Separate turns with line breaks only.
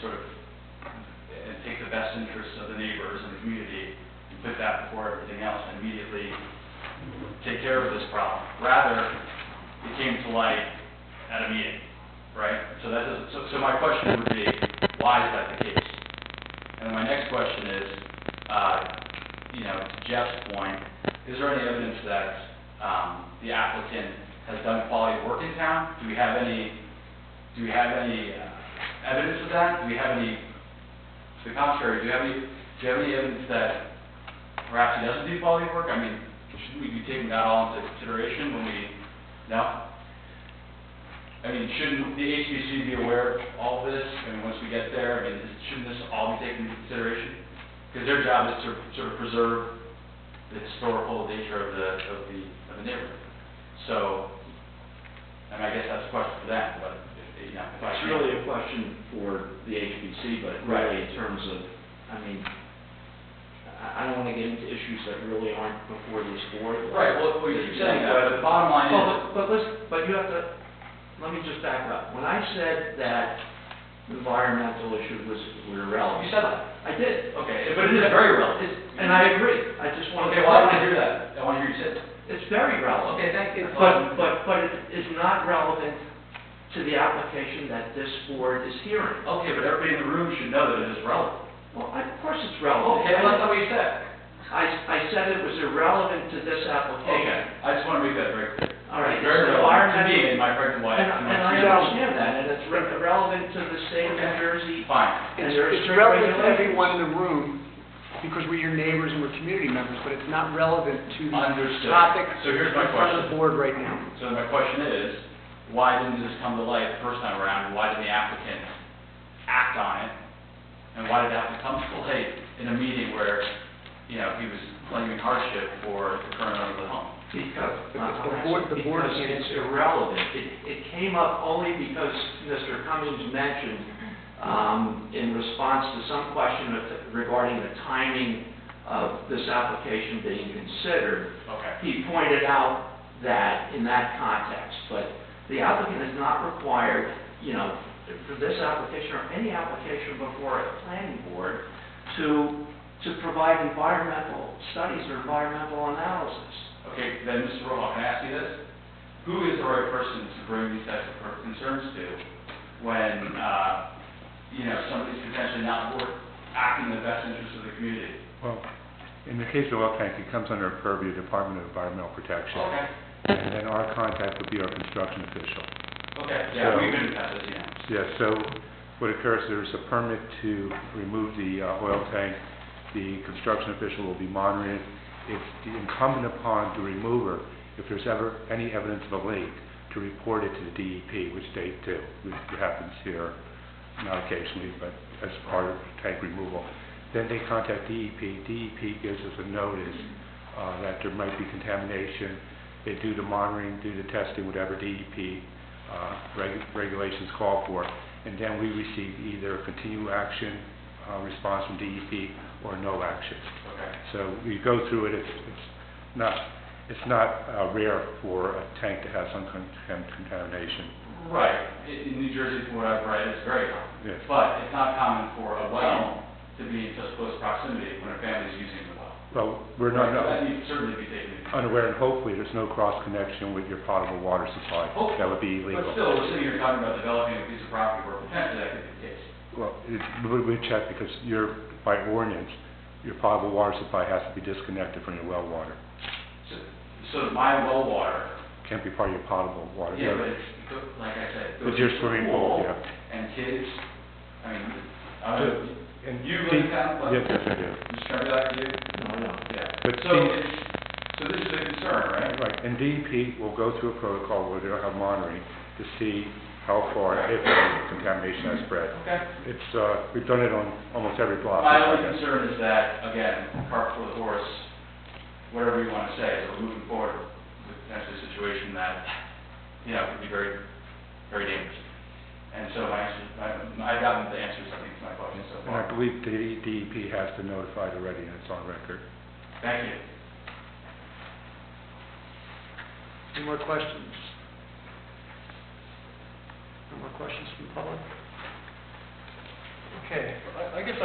sort of, and take the best interests of the neighbors and the community, and put that before everything else, and immediately take care of this problem. Rather, it came to light at a meeting, right? So that doesn't, so, so my question would be, why is that the case? And my next question is, uh, you know, to Jeff's point, is there any evidence that, um, the applicant has done quality work in town? Do we have any, do we have any uh, evidence of that? Do we have any, to the contrary, do you have any, do you have any evidence that perhaps he doesn't do quality work? I mean, shouldn't we be taking that all into consideration when we, no? I mean, shouldn't the HBC be aware of all this? I mean, once we get there, I mean, is- shouldn't this all be taken into consideration? Because their job is to sort of preserve the historical nature of the, of the, of the neighborhood. So, I mean, I guess that's a question for them, but, if- you know, if I
It's
can-
really a question for the HBC, but really in terms of, I mean, I, I don't wanna get into issues that really aren't before this board.
Right, well, well, you keep saying that, but the bottom line is.
Well, But but listen, but you have to, let me just back up. When I said that environmental issue was, were irrelevant.
You said that.
I did.
Okay, but it is very relevant.
It's- And I agree. I just wanna.
Okay, well, I want to hear that. I want to hear you say it.
It's very relevant.
Okay, thank you.
But, but, but it is not relevant to the application that this board is hearing.
Okay, but everybody in the room should know that it is relevant.
Well, I- of course it's relevant.
Okay, well, that's not what you said.
I, I said it was irrelevant to this
Okay,
application.
I just want to make that very clear.
All right,
It's Very
so
relevant to
our-
me and my pregnant wife.
And,
and my
and I
three dogs.
understand that, and it's re- relevant to the state of New Jersey.
Fine.
And
It's
there are
it's
strict
relevant to
regulations.
everyone in the room, because we're your neighbors and we're community members, but it's not relevant to the
Understood.
topic
So here's my
in front
question.
of the board right now.
So my question is, why didn't this come to light the first time around? Why did the applicant act on it? And why did it have to come to light in a meeting where, you know, he was claiming hardship for the current owner of the home?
Because,
But the- the board- the board
because
is-
it's irrelevant. It, it came up only because Mr. Cummings mentioned, um, in response to some question of- regarding the timing of this application being considered,
Okay.
he pointed out that in that context, but the applicant is not required, you know, for this application or any application before a planning board to, to provide environmental studies or environmental analysis.
Okay, then, Mr. Rojo, can I ask you this? Who is the right person to bring these types of per- concerns to when, uh, you know, somebody's potentially not work, acting in the best interest of the community?
Well, in the case of oil tank, it comes under purview of Department of Environmental Protection.
Okay,
And then our contact would be our construction official.
okay, yeah,
So-
we've been past this, yeah.
Yeah, so what occurs, there's a permit to remove the uh, oil tank. The construction official will be monitoring it. It's incumbent upon the remover, if there's ever any evidence of a leak, to report it to the DEP, which they do. which happens here, not occasionally, but as part of tank removal. Then they contact E DEP. DEP gives us a notice uh, that there might be contamination. They do the monitoring, do the testing, whatever DEP uh, reg- regulations call for. And then we receive either a continue action uh, response from DEP or no action.
Okay.
So we go through it, it's it's not, it's not uh, rare for a tank to have some con- con- contamination.
Right, in, in New Jersey, from what I've read, it's very common.
Yes.
But it's not common for a well to be in such close proximity when a family's using the well.
Well, we're not,
So
no-
That needs to certainly be taken into
unaware, and hopefully there's no cross-connection with your potable water supply.
Oh,
That would be illegal.
But still, we're sitting here talking about developing a piece of property where potentially that could be the case.
Well, it- we we check because you're, by ordinance, your potable water supply has to be disconnected from your well water.
So, so my well water,
Can't be part of your potable water.
yeah, but it's, go- like I said.
It's your swimming pool, yeah.
And kids, I mean, I don't,
And
you
see-
live down, but.
Yes, yes, I do.
Just trying to back you,
No, no.
yeah.
But
So
see-
it's, so this is a concern, right?
Right, and DEP will go through a protocol where they'll have monitoring to see how far, if any, contamination has spread.
Okay.
It's, uh, we've done it on almost every block.
My only concern is that, again, cart before the horse, whatever you want to say, is we're moving forward with potentially a situation that, you know, could be very, very dangerous. And so my, answer- my- I've gotten the answers, I think, to my question so
And I
far.
believe the DEP has been notified already, and it's on record.
Thank you.
Any more questions? No more questions from the public? Okay, I I guess